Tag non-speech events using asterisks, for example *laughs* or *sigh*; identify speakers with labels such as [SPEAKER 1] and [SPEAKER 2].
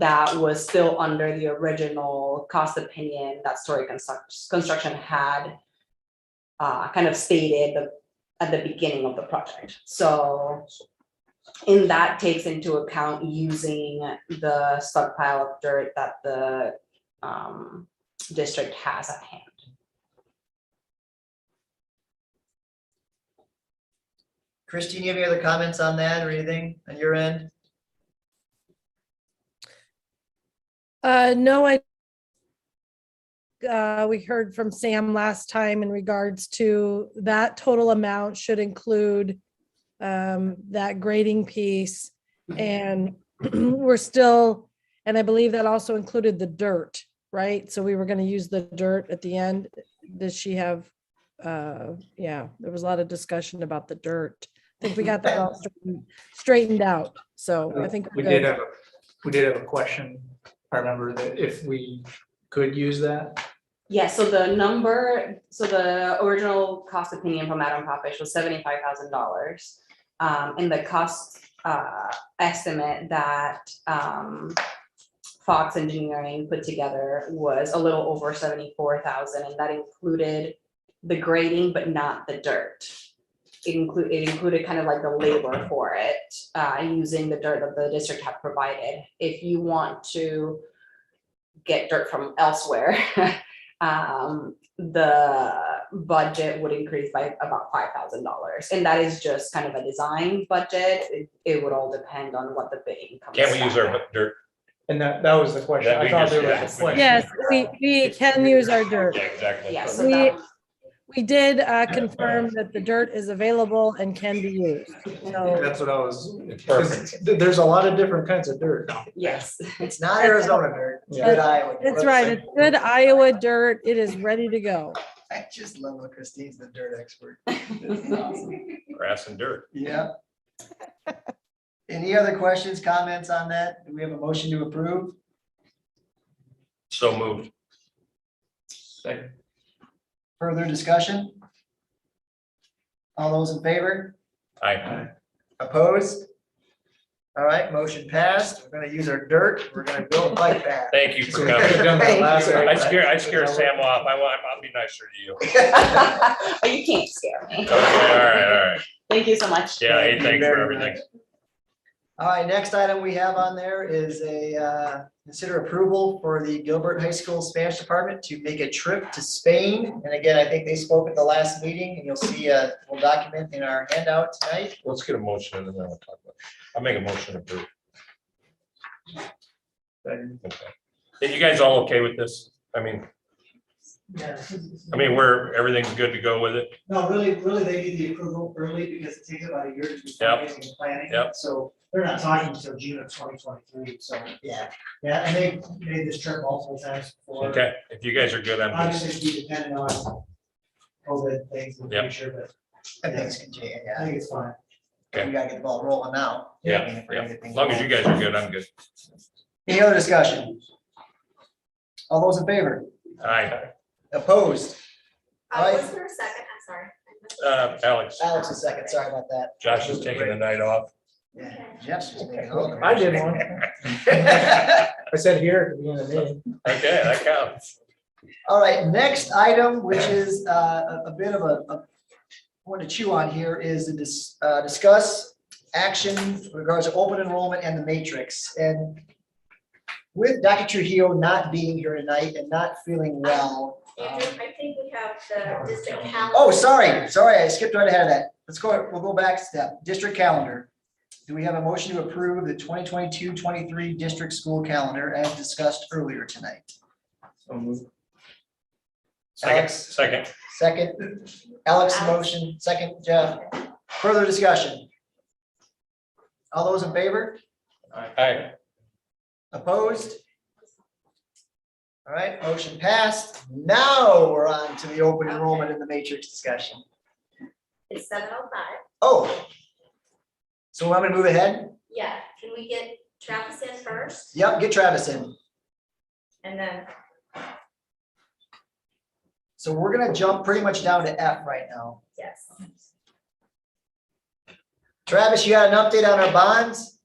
[SPEAKER 1] that was still under the original cost opinion that Story Construct- Construction had uh, kind of stated the- at the beginning of the project. So in that takes into account using the stockpile of dirt that the um, district has at hand.
[SPEAKER 2] Christine, you have any other comments on that or anything on your end?
[SPEAKER 3] Uh, no, I. Uh, we heard from Sam last time in regards to that total amount should include. Um, that grading piece and *clears throat* we're still, and I believe that also included the dirt, right? So we were gonna use the dirt at the end. Does she have? Uh, yeah, there was a lot of discussion about the dirt. I think we got that all straightened- straightened out, so I think.
[SPEAKER 4] Uh, We
[SPEAKER 3] we're
[SPEAKER 4] did
[SPEAKER 3] good.
[SPEAKER 4] have, a we did have a question. I remember that if we could use that,
[SPEAKER 1] Yeah, so the number, so the original cost opinion from Adam Popish was seventy-five thousand dollars. Um, and the cost, uh, estimate that, um, Fox Engineering put together was a little over seventy-four thousand, and that included the grading, but not the dirt. It include, it included kind of like the labor for it, uh, using the dirt that the district had provided. If you want to get dirt from elsewhere, *laughs* um, the budget would increase by about five thousand dollars, and that is just kind of a design budget. It, it would all depend on what the bidding comes.
[SPEAKER 5] Can't we use
[SPEAKER 1] back
[SPEAKER 5] our
[SPEAKER 1] at.
[SPEAKER 5] dirt?
[SPEAKER 4] and that, that was the question.
[SPEAKER 5] That
[SPEAKER 4] I
[SPEAKER 5] we
[SPEAKER 4] thought
[SPEAKER 5] just-
[SPEAKER 4] there
[SPEAKER 5] yeah.
[SPEAKER 4] was a question.
[SPEAKER 3] Yes, we, we can use our dirt.
[SPEAKER 5] Yeah, exactly.
[SPEAKER 1] Yeah, so
[SPEAKER 3] We-
[SPEAKER 1] that,
[SPEAKER 3] We did uh, confirm that the dirt is available and can be used. So
[SPEAKER 4] That's what I was,
[SPEAKER 5] Perfect.
[SPEAKER 4] 'cause th- there's a lot of different kinds of dirt now.
[SPEAKER 1] *laughs* yes,
[SPEAKER 2] It's not Arizona dirt, it's good Iowa. dirt.
[SPEAKER 3] That's right. It's good Iowa dirt. It is ready to go.
[SPEAKER 2] I just love how Christine's the dirt
[SPEAKER 3] *laughs*
[SPEAKER 2] expert. This is awesome.
[SPEAKER 5] Grass and dirt.
[SPEAKER 2] Yeah. Any other questions, comments on that? Do we have a motion to approve?
[SPEAKER 5] So moved.
[SPEAKER 2] Further discussion? All those in favor?
[SPEAKER 5] I,
[SPEAKER 2] Opposed? All right, motion passed. We're gonna use our dirt. We're gonna go like that.
[SPEAKER 5] thank you for
[SPEAKER 4] We could've
[SPEAKER 5] coming.
[SPEAKER 4] done that last
[SPEAKER 5] I
[SPEAKER 4] night.
[SPEAKER 5] scare, I scare Sam off. I want, I'll be nicer to you.
[SPEAKER 1] but Oh, you can't scare me.
[SPEAKER 5] Okay, all right, all right.
[SPEAKER 1] Thank you so much.
[SPEAKER 5] Yeah, hey,
[SPEAKER 2] Thank you
[SPEAKER 5] thanks for
[SPEAKER 2] very
[SPEAKER 5] everything.
[SPEAKER 2] All right, next item we have on there is a, uh, consider approval for the Gilbert High School Spanish Department to make a trip to Spain. And again, I think they spoke at the last meeting and you'll see, uh, we'll document in our handout tonight.
[SPEAKER 5] Let's get a motion and then we'll talk about it. I'll make a motion to approve. Okay. Are you guys all okay with this? I mean, I mean, we're, everything's good to go with it?
[SPEAKER 6] No, really, really, they need the approval early because it takes about a year to do
[SPEAKER 5] Yep.
[SPEAKER 6] fundraising and planning.
[SPEAKER 5] Yep.
[SPEAKER 6] So they're not talking until June of twenty twenty-three, so,
[SPEAKER 2] Yeah,
[SPEAKER 6] yeah, and they made this trip multiple times before.
[SPEAKER 5] Okay, if you guys are good, I'm just,
[SPEAKER 6] Obviously, it'd be dependent on COVID things in the
[SPEAKER 5] Yep.
[SPEAKER 6] future, but
[SPEAKER 2] I think it's good,
[SPEAKER 6] I
[SPEAKER 2] yeah.
[SPEAKER 6] think it's fine.
[SPEAKER 2] We gotta get the ball rolling now. I mean,
[SPEAKER 5] yeah,
[SPEAKER 2] if we're
[SPEAKER 5] yeah.
[SPEAKER 2] gonna get
[SPEAKER 5] As
[SPEAKER 2] things
[SPEAKER 5] long as you
[SPEAKER 2] going.
[SPEAKER 5] guys are good, I'm good.
[SPEAKER 2] Any other discussion? All those in favor?
[SPEAKER 5] Aye,
[SPEAKER 2] Opposed?
[SPEAKER 7] Uh,
[SPEAKER 2] Aye.
[SPEAKER 7] was there a second? I'm sorry.
[SPEAKER 5] uh, Alex,
[SPEAKER 2] Alex is second, sorry about that.
[SPEAKER 5] Josh is taking the night off.
[SPEAKER 2] Yeah, Jeff's just making all the.
[SPEAKER 4] I did one.
[SPEAKER 2] *laughs*
[SPEAKER 4] I said here at the beginning of the meeting.
[SPEAKER 5] Okay, that counts.
[SPEAKER 2] All right, next item, which is uh, a a bit of a, a one to chew on here, is to dis- uh, discuss action in regards to open enrollment and the matrix. And with Dr. Trujillo not being here tonight and not feeling well. um,
[SPEAKER 7] Andrew, I think we have the district calendar.
[SPEAKER 2] Oh, sorry, sorry, I skipped right ahead of that. Let's go, we'll go back a step. District calendar. Do we have a motion to approve the 2022-23 district school calendar as discussed earlier tonight?
[SPEAKER 5] Second,
[SPEAKER 2] Alex?
[SPEAKER 5] second,
[SPEAKER 2] Second, Alex motion, second Jeff. Further discussion? All those in favor?
[SPEAKER 5] aye,
[SPEAKER 2] Opposed? All right, motion passed. Now we're on to the open enrollment in the matrix discussion.
[SPEAKER 7] It's seven oh five.
[SPEAKER 2] Oh. So I'm gonna move ahead.
[SPEAKER 7] Yeah, can we get Travis in first
[SPEAKER 2] Yep, get Travis in.
[SPEAKER 7] and then,
[SPEAKER 2] So we're gonna jump pretty much down to F right now.
[SPEAKER 7] yes.
[SPEAKER 2] Travis, you got an update on our bonds?